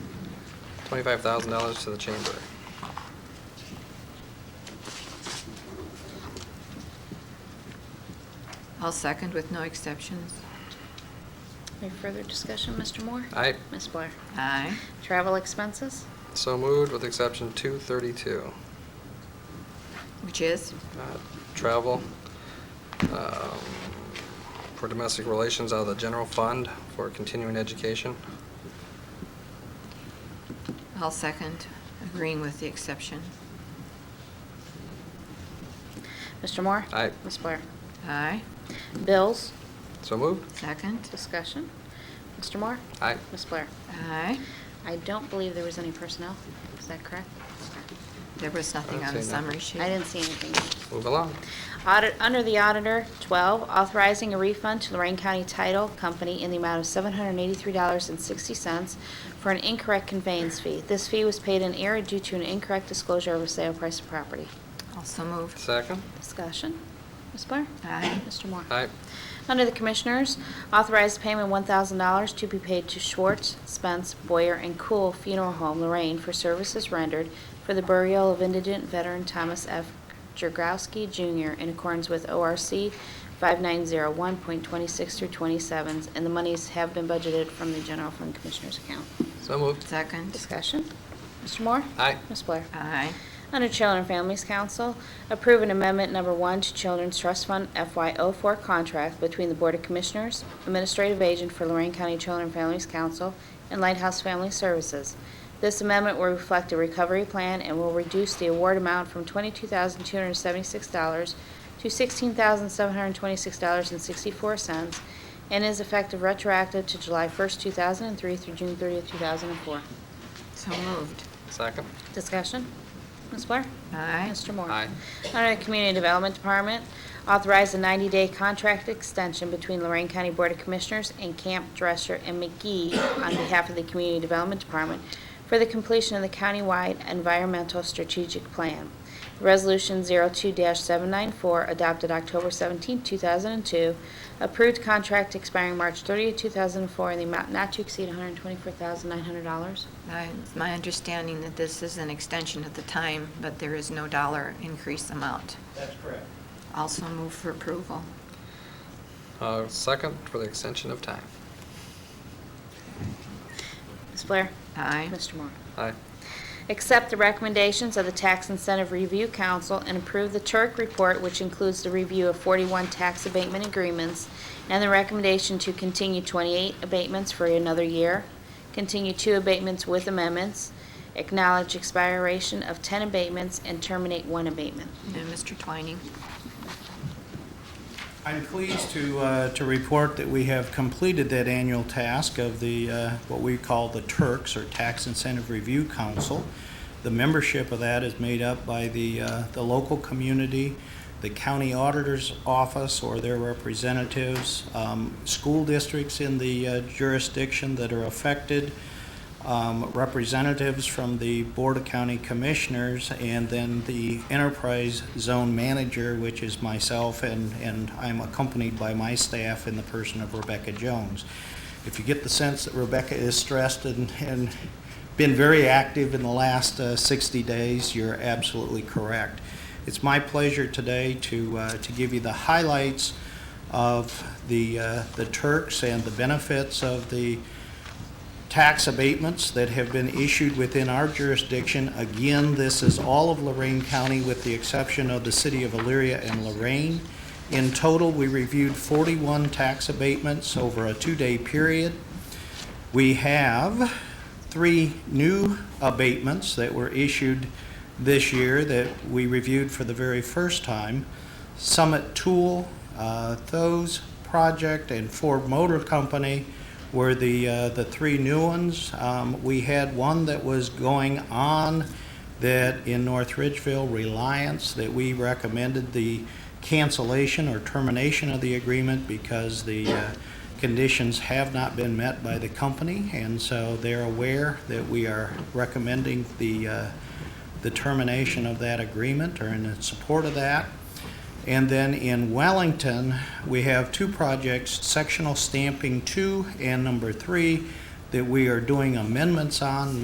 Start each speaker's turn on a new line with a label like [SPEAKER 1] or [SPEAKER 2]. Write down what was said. [SPEAKER 1] twenty-five thousand dollars to the chamber.
[SPEAKER 2] I'll second with no exceptions.
[SPEAKER 3] Any further discussion, Mr. Moore?
[SPEAKER 1] Aye.
[SPEAKER 3] Ms. Blair?
[SPEAKER 2] Aye.
[SPEAKER 3] Travel expenses?
[SPEAKER 1] So moved with exception two thirty-two.
[SPEAKER 2] Which is?
[SPEAKER 1] uh, travel um, for domestic relations out of the general fund for continuing education.
[SPEAKER 2] I'll second, agreeing with the exception.
[SPEAKER 3] Mr. Moore?
[SPEAKER 1] Aye.
[SPEAKER 3] Ms. Blair?
[SPEAKER 2] Aye.
[SPEAKER 3] Bills?
[SPEAKER 1] So moved.
[SPEAKER 2] Second?
[SPEAKER 3] Discussion. Mr. Moore?
[SPEAKER 1] Aye.
[SPEAKER 3] Ms. Blair?
[SPEAKER 2] Aye.
[SPEAKER 3] I don't believe there was any personnel. Is that correct? Okay.
[SPEAKER 2] There was nothing
[SPEAKER 1] I
[SPEAKER 2] on the
[SPEAKER 1] didn't see
[SPEAKER 2] summary
[SPEAKER 1] nothing.
[SPEAKER 2] sheet.
[SPEAKER 3] I didn't see anything.
[SPEAKER 1] Move along.
[SPEAKER 3] Audit, under the auditor, 12, authorizing a refund to Lorraine County Title Company in the amount of $783.60 for an incorrect conveyance fee. This fee was paid in error due to an incorrect disclosure of a sale price of property.
[SPEAKER 2] Also moved.
[SPEAKER 1] Second.
[SPEAKER 3] Discussion. Ms. Blair?
[SPEAKER 2] Aye.
[SPEAKER 3] Mr. Moore?
[SPEAKER 1] Aye.
[SPEAKER 3] Under the Commissioners, authorized payment $1,000 to be paid to Schwartz, Spence, Boyer, and Cool Funeral Home, Lorraine, for services rendered for the burial of indigent veteran Thomas F. Jurgowski Jr. in accordance with ORC 5901.26 through 27s, and the monies have been budgeted from the General Fund Commissioners account.
[SPEAKER 1] So moved.
[SPEAKER 2] Second?
[SPEAKER 3] Discussion. Mr. Moore?
[SPEAKER 1] Aye.
[SPEAKER 3] Ms. Blair?
[SPEAKER 2] Aye.
[SPEAKER 3] Under Children and Families Council, approve an amendment number one to Children's Trust Fund FY04 contract between the Board of Commissioners, Administrative Agent for Lorraine County Children and Families Council, and Lighthouse Family Services. This amendment will reflect a recovery plan and will reduce the award amount from $22,276 to $16,726.64, and is effective retroactive to July 1st, 2003 through June 30th, 2004.
[SPEAKER 2] So moved.
[SPEAKER 1] Second.
[SPEAKER 3] Discussion? Ms. Blair?
[SPEAKER 2] Aye.
[SPEAKER 3] Mr. Moore?
[SPEAKER 1] Aye.
[SPEAKER 3] Under the Community Development Department, authorize a 90-day contract extension between Lorraine County Board of Commissioners and Camp Dresser and McGee on behalf of the Community Development Department for the completion of the countywide environmental strategic plan. Resolution 02-794, adopted October 17, 2002, approved contract expiring March 30, 2004, in the amount not to exceed $124,900.
[SPEAKER 2] I- It's my understanding that this is an extension at the time, but there is no dollar increase amount.
[SPEAKER 4] That's correct.
[SPEAKER 2] Also move for approval.
[SPEAKER 1] Uh, Second for the extension of time.
[SPEAKER 3] Ms. Blair?
[SPEAKER 2] Aye.
[SPEAKER 3] Mr. Moore?
[SPEAKER 1] Aye.
[SPEAKER 3] Accept the recommendations of the Tax Incentive Review Council and approve the Turk Report, which includes the review of 41 tax abatement agreements and the recommendation to continue 28 abatements for another year, continue two abatements with amendments, acknowledge expiration of 10 abatements, and terminate one abatement.
[SPEAKER 2] And Mr. Twining?
[SPEAKER 4] I'm pleased to, uh, to report that we have completed that annual task of the, uh, what we call the Turks, or Tax Incentive Review Council. The membership of that is made up by the, uh, the local community, the county auditor's office or their representatives, um, school districts in the uh, jurisdiction that are affected, um, representatives from the Board of County Commissioners, and then the Enterprise Zone Manager, which is myself, and, and I'm accompanied by my staff in the person of Rebecca Jones. If you get the sense that Rebecca is stressed and, and been very active in the last uh, 60 days, you're absolutely correct. It's my pleasure today to, uh, to give you the highlights of the, uh, the Turks and the benefits of the tax abatements that have been issued within our jurisdiction. Again, this is all of Lorraine County with the exception of the city of Elyria and Lorraine. In total, we reviewed 41 tax abatements over a two-day period. We have three new abatements that were issued this year that we reviewed for the very first time. Summit Tool, uh, Thos Project, and Ford Motor Company were the, uh, the three new ones. Um, We had one that was going on that in North Ridgeville, Reliance, that we recommended the cancellation or termination of the agreement because the uh, conditions have not been met by the company, and so they're aware that we are recommending the, uh, the termination of that agreement or in support of that. And then in Wellington, we have two projects, sectional stamping two and number three, that we are doing amendments on.